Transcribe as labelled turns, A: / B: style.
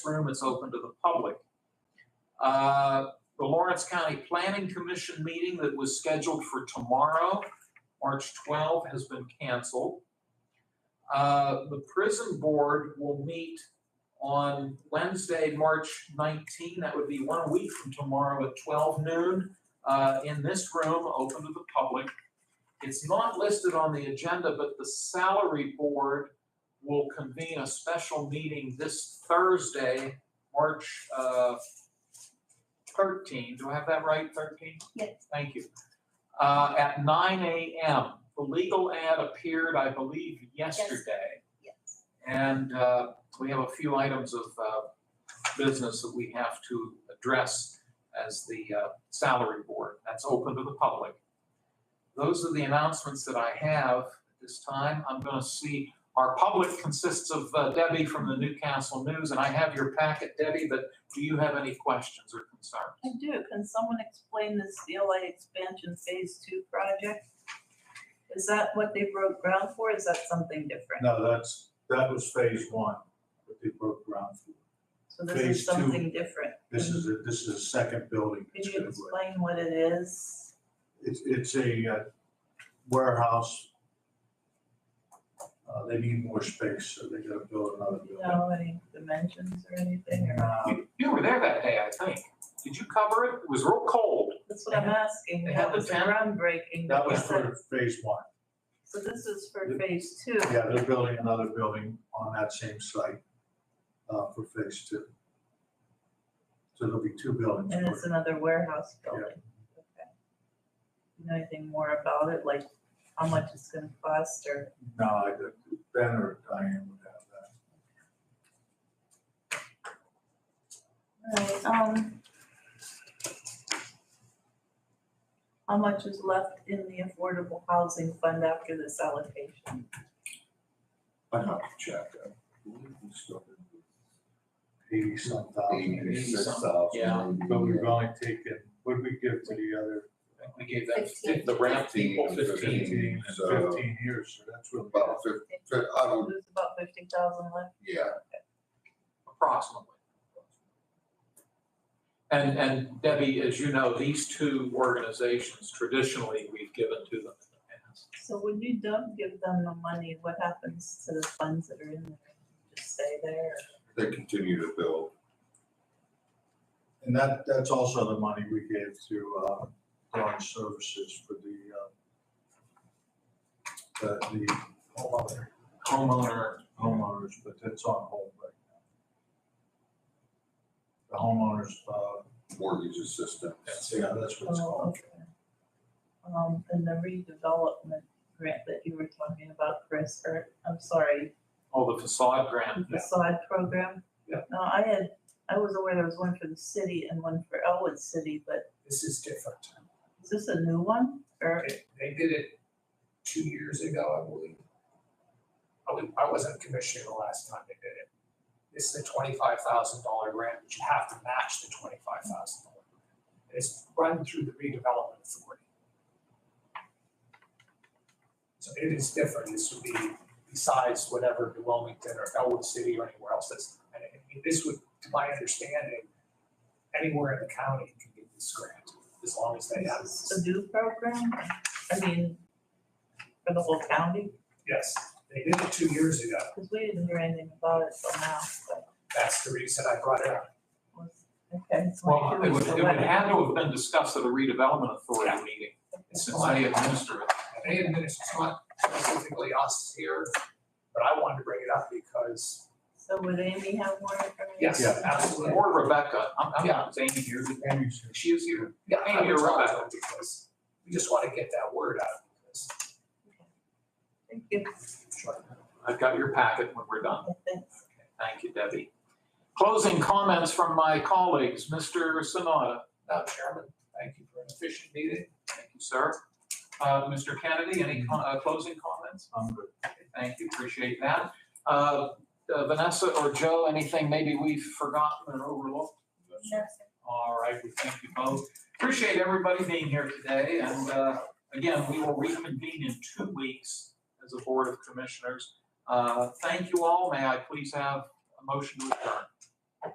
A: room, it's open to the public. Uh, The Lawrence County Planning Commission meeting that was scheduled for tomorrow, March 12, has been canceled. Uh, The prison board will meet on Wednesday, March 19, that would be one week from tomorrow at 12 noon, uh, in this room, open to the public. It's not listed on the agenda, but the salary board will convene a special meeting this Thursday, March uh, 13. Do I have that right, 13?
B: Yes.
A: Thank you. Uh, At 9 a.m. The legal ad appeared, I believe, yesterday.
B: Yes.
A: And uh, we have a few items of uh, business that we have to address as the uh, salary board. That's open to the public. Those are the announcements that I have at this time. I'm going to see our public consists of uh, Debbie from the Newcastle News, and I have your packet, Debbie, but do you have any questions or concerns?
C: I do, can someone explain this CLA expansion phase two project? Is that what they broke ground for, is that something different?
D: No, that's, that was phase one, what they broke ground for.
C: So this
D: phase
C: is
D: two.
C: something different,
D: This is, a- this is a second building.
C: could
D: that's
C: you
D: gonna go in.
C: explain what it is?
D: It's, it's a uh, warehouse. Uh, they need more space, so they gotta build another
C: Do you
D: building.
C: know any dimensions or anything, or,
D: Uh,
A: You- You were there that day, I think. Did you cover it? It was real cold.
C: that's what I'm asking,
A: They have
C: that
A: the
C: was
A: tent.
C: groundbreaking.
D: That was
C: but
D: for phase one.
C: So this is for phase two,
D: Yeah, they're building another building on that same site, uh, for phase two. So there'll be two buildings.
C: and it's another warehouse building, okay. You Know anything more about it, like how much it's gonna cost, or?
D: No, I, Ben or Diane would have that.
C: Alright, um. How much is left in the affordable housing fund after this allocation?
D: I'd have to check. uh, I believe we still have Eighty some thousand,
E: Eighty-six thousand.
A: Yeah.
D: but we've only taken, what did we give to the other
A: I think We gave that,
B: Fifteen.
A: the ramp people
E: Fifteen.
A: 15.
D: fifteen,
E: So-
D: fifteen years, so that's really.
E: About fif- fif- I
D: Um,
E: don't,
C: There's about fifty thousand left.
E: yeah,
A: approximately. And, and Debbie, as you know, these two organizations traditionally we've given to them in the past.
C: So when you don't give them the money, what happens to the funds that are in there? Just stay there?
E: they continue to build.
D: And that, that's also the money we gave to, uh, Dawn Services for the, uh, the, the homeowner-
A: Homeowner,
D: homeowners, but that's on hold right now. The homeowners, uh,
E: mortgage assistance.
D: yeah, that's what it's
C: Oh,
D: called.
C: okay. Um, and the redevelopment grant that you were talking about, Chris, or, I'm sorry,
A: all the facade grant.
C: the side program.
D: Yeah.
C: No, I had, I was aware there was one for the city and one for Elwood City, but
F: This is different.
C: is this a new one? Or,
F: They- They did it two years ago, I believe. I was- I wasn't commissioner the last time they did it. This is a twenty-five thousand dollar grant, but you have to match the twenty-five thousand dollar grant. And It's run through the redevelopment authority. So it is different, this would be besides whatever New Wilmington or Elwood City or anywhere else that's, and I mean, this would, to my understanding, anywhere in the county can get this grant, as long as they have.
C: is this a new program? I mean, for the whole county?
F: Yes, they did it two years ago.
C: Because we didn't hear anything about it till now, but
F: That's the reason I brought it up.
C: was, okay. it's like
A: Well,
C: two
A: it would,
C: weeks
A: it would
C: away.
A: have to have been discussed at a redevelopment authority meeting.
F: It's
A: So
F: just
A: how do
F: like,
A: you administer it?
F: they administer, it's not specifically us here, but I wanted to bring it up because,
C: So would Amy have more information?
F: yes,
D: Yeah.
F: absolutely.
A: Or Rebecca, I'm, I'm not saying here,
D: Amy's here.
A: she is here.
F: Yeah, I
A: Amy or
F: would talk to
A: Rebecca.
F: them because we just want to get that word out because
C: Thank you.
A: I've got your packet when we're done.
C: Thanks.
A: Thank you, Debbie. Closing comments from my colleagues, Mr. Sonata.
F: Madam Chairman, thank you for an efficient meeting.
A: Thank you, sir. Uh, Mr. Kennedy, any co- uh, closing comments?
D: I'm good.
A: Thank you, appreciate that. Uh, uh, Vanessa or Joe, anything maybe we've forgotten or overlooked?
B: Yes.
A: All right, we thank you both. Appreciate everybody being here today, and uh, again, we will reconvene in two weeks as a Board of Commissioners. Uh, Thank you all, may I please have a motion to adjourn?